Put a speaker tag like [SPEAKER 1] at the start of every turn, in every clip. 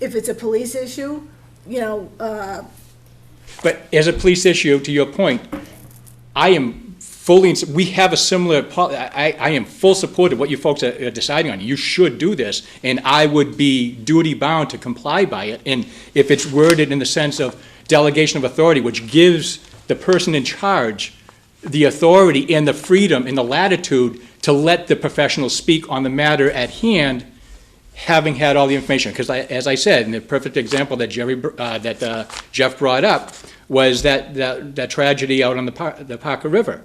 [SPEAKER 1] if it's a police issue, you know, uh,
[SPEAKER 2] But as a police issue, to your point, I am fully, in- we have a similar, pol- I, I I am full support of what you folks are are deciding on. You should do this, and I would be duty-bound to comply by it. And if it's worded in the sense of delegation of authority, which gives the person in charge the authority and the freedom and the latitude to let the professional speak on the matter at hand, having had all the information, because I, as I said, and the perfect example that Jerry, br- uh, that uh, Jeff brought up was that, that, that tragedy out on the Par, the Parker River.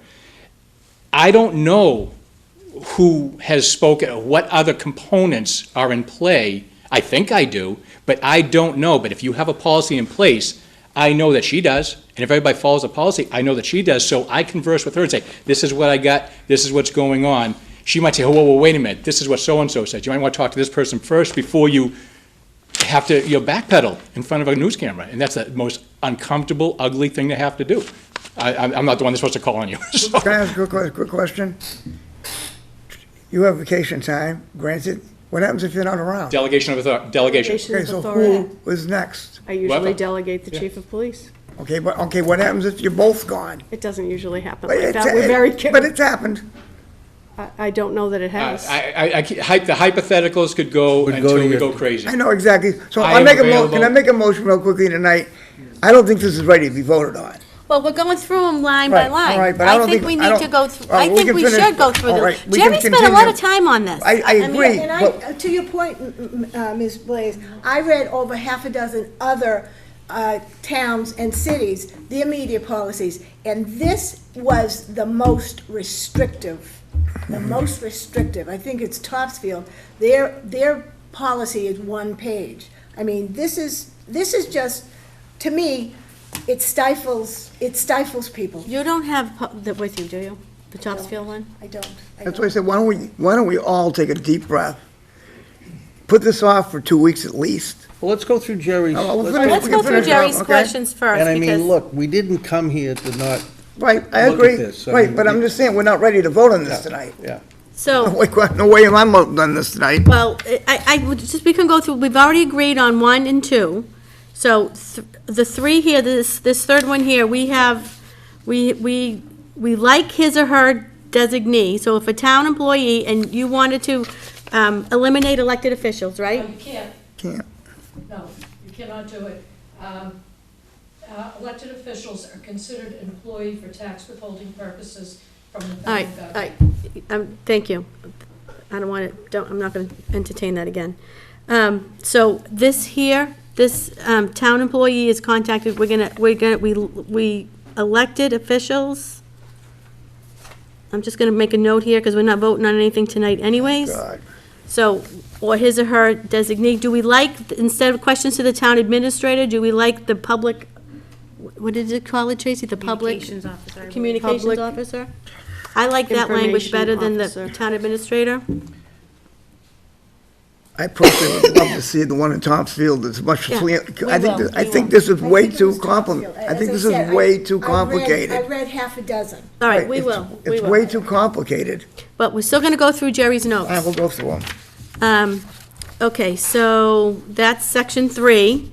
[SPEAKER 2] I don't know who has spoken, or what other components are in play. I think I do, but I don't know. But if you have a policy in place, I know that she does. And if everybody follows the policy, I know that she does. So I converse with her and say, this is what I got, this is what's going on. She might say, oh, whoa, whoa, wait a minute, this is what so-and-so said. You might want to talk to this person first before you have to, you know, backpedal in front of a news camera. And that's the most uncomfortable, ugly thing to have to do. I, I'm I'm not the one that's supposed to call on you. So-
[SPEAKER 3] Can I ask a quick, quick question? You have vacation time, granted. What happens if you're not around?
[SPEAKER 2] Delegation of authority, delegation.
[SPEAKER 4] Delegation
[SPEAKER 3] Okay,
[SPEAKER 4] of
[SPEAKER 3] so
[SPEAKER 4] authority.
[SPEAKER 3] who is next?
[SPEAKER 4] I usually
[SPEAKER 2] Whoever.
[SPEAKER 4] delegate the chief of police.
[SPEAKER 3] Okay, but, okay, what happens if you're both gone?
[SPEAKER 4] It doesn't usually happen
[SPEAKER 3] But
[SPEAKER 4] like
[SPEAKER 3] it's-
[SPEAKER 4] that. We're very
[SPEAKER 3] But
[SPEAKER 4] careful.
[SPEAKER 3] it's happened.
[SPEAKER 4] I, I don't know that it has.
[SPEAKER 2] Uh, I, I, I, ke- hy- the hypotheticals could go
[SPEAKER 5] Would go
[SPEAKER 2] until
[SPEAKER 5] to
[SPEAKER 2] we
[SPEAKER 5] your-
[SPEAKER 2] go crazy.
[SPEAKER 3] I know exactly. So
[SPEAKER 2] I
[SPEAKER 3] I
[SPEAKER 2] am
[SPEAKER 3] make a mo, can I
[SPEAKER 2] available.
[SPEAKER 3] make a motion real quickly tonight? I don't think this is ready to be voted on.
[SPEAKER 6] Well, we're going through them line by
[SPEAKER 3] Right, all
[SPEAKER 6] line.
[SPEAKER 3] right, but I don't
[SPEAKER 6] think
[SPEAKER 3] think-
[SPEAKER 6] we
[SPEAKER 3] I
[SPEAKER 6] need to
[SPEAKER 3] don't-
[SPEAKER 6] go through,
[SPEAKER 3] all right,
[SPEAKER 6] I
[SPEAKER 3] we
[SPEAKER 6] think
[SPEAKER 3] can
[SPEAKER 6] we
[SPEAKER 3] finish-
[SPEAKER 6] should go through
[SPEAKER 3] all
[SPEAKER 6] them.
[SPEAKER 3] right, we
[SPEAKER 6] Jerry
[SPEAKER 3] can
[SPEAKER 6] spent a lot of
[SPEAKER 3] continue.
[SPEAKER 6] time on this.
[SPEAKER 3] I, I
[SPEAKER 1] I mean,
[SPEAKER 3] agree,
[SPEAKER 1] and
[SPEAKER 3] but-
[SPEAKER 1] I, uh, to your point, m- m- uh, Ms. Blaze, I read over half a dozen other uh, towns and cities, their media policies, and this was the most restrictive, the most restrictive. I think it's Topsfield. Their, their policy is one page. I mean, this is, this is just, to me, it stifles, it stifles people.
[SPEAKER 6] You don't have pu- that with you, do you? The Topsfield one?
[SPEAKER 1] I don't. I
[SPEAKER 3] that's
[SPEAKER 1] don't.
[SPEAKER 3] why I said, why don't we, why don't we all take a deep breath? Put this off for two weeks at least.
[SPEAKER 5] Well, let's go through Jerry's.
[SPEAKER 3] Oh, we'll
[SPEAKER 5] let's-
[SPEAKER 3] finish-
[SPEAKER 6] Let's
[SPEAKER 3] we
[SPEAKER 6] go
[SPEAKER 3] can
[SPEAKER 6] through
[SPEAKER 3] finish it up,
[SPEAKER 6] Jerry's
[SPEAKER 3] okay?
[SPEAKER 6] questions first
[SPEAKER 5] And I mean,
[SPEAKER 6] because
[SPEAKER 5] look, we didn't come here to not,
[SPEAKER 3] Right, I
[SPEAKER 5] Look at
[SPEAKER 3] agree.
[SPEAKER 5] this, I
[SPEAKER 3] Right,
[SPEAKER 5] mean,
[SPEAKER 3] but I'm
[SPEAKER 5] it-
[SPEAKER 3] just saying, we're not ready to vote on this tonight.
[SPEAKER 5] yeah.
[SPEAKER 6] so,
[SPEAKER 3] Like, what? no way am I voting on this tonight.
[SPEAKER 6] well, I, I would just, we can go through, we've already agreed on one and two. So th- the three here, this, this third one here, we have, we, we, we like his or her designee. So if a town employee and you wanted to um, eliminate elected officials,
[SPEAKER 7] No,
[SPEAKER 6] right?
[SPEAKER 7] you can't,
[SPEAKER 3] Can't.
[SPEAKER 7] no, you cannot do it. Um, uh, Elected officials are considered employee for tax withholding purposes from the
[SPEAKER 6] All right,
[SPEAKER 7] federal
[SPEAKER 6] all
[SPEAKER 7] government.
[SPEAKER 6] right, um, thank you. I don't want to, don't, I'm not going to entertain that again. Um, so this here, this, um, town employee is contacted, we're gonna, we're gonna, we, we elected officials. I'm just gonna make a note here, because we're not voting on anything tonight
[SPEAKER 3] Oh
[SPEAKER 6] anyways.
[SPEAKER 3] God.
[SPEAKER 6] So, or his or her designee, do we like, instead of questions to the town administrator, do we like the public, what did it call it, Tracy, the public?
[SPEAKER 4] Communications officer, I believe.
[SPEAKER 6] Communications
[SPEAKER 4] Public-
[SPEAKER 6] officer? I like that language better than the
[SPEAKER 4] Information officer.
[SPEAKER 6] town administrator.
[SPEAKER 3] I personally would love to see the one in Topsfield as much as, we-
[SPEAKER 6] Yeah,
[SPEAKER 3] I think,
[SPEAKER 6] will,
[SPEAKER 3] th- I
[SPEAKER 6] we
[SPEAKER 3] think
[SPEAKER 6] will.
[SPEAKER 3] this is
[SPEAKER 1] I
[SPEAKER 3] way
[SPEAKER 1] think it
[SPEAKER 3] too
[SPEAKER 1] was
[SPEAKER 3] compli,
[SPEAKER 1] Topsfield.
[SPEAKER 3] I
[SPEAKER 1] As
[SPEAKER 3] think this
[SPEAKER 1] said,
[SPEAKER 3] is
[SPEAKER 1] I-
[SPEAKER 3] way too
[SPEAKER 1] I read- I
[SPEAKER 3] complicated.
[SPEAKER 1] read half a dozen.
[SPEAKER 6] All right, we
[SPEAKER 3] It's-
[SPEAKER 6] will, we
[SPEAKER 3] It's way
[SPEAKER 6] will.
[SPEAKER 3] too complicated.
[SPEAKER 6] But we're still gonna go through Jerry's
[SPEAKER 3] I will
[SPEAKER 6] notes.
[SPEAKER 3] go through them.
[SPEAKER 6] Um, okay, so that's section three,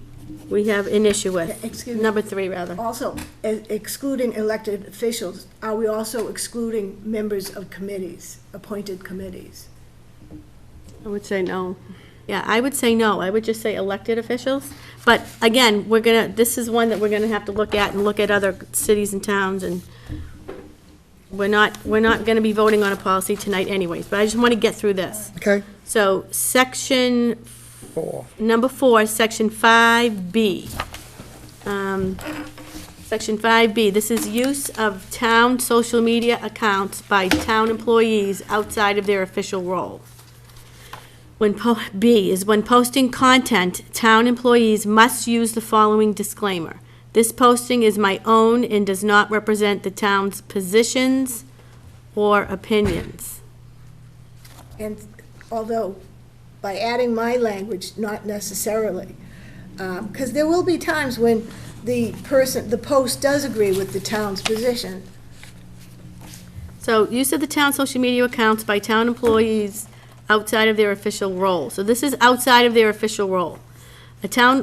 [SPEAKER 6] we have an issue with.
[SPEAKER 1] Excuse me.
[SPEAKER 6] Number three, rather.
[SPEAKER 1] Also, e- excluding elected officials, are we also excluding members of committees, appointed committees?
[SPEAKER 4] I would say no.
[SPEAKER 6] Yeah, I would say no, I would just say elected officials. But again, we're gonna, this is one that we're gonna have to look at and look at other cities and towns and we're not, we're not gonna be voting on a policy tonight anyways, but I just wanna get through this.
[SPEAKER 3] Okay?
[SPEAKER 6] So, section
[SPEAKER 3] Four.
[SPEAKER 6] Number four, section five B. Um, Section five B, this is use of town social media accounts by town employees outside of their official role. When po, B is when posting content, town employees must use the following disclaimer. This posting is my own and does not represent the town's positions or opinions.
[SPEAKER 1] And although, by adding my language, not necessarily, because there will be times when the person, the post does agree with the town's position.
[SPEAKER 6] So use of the town social media accounts by town employees outside of their official role. So this is outside of their official role. A town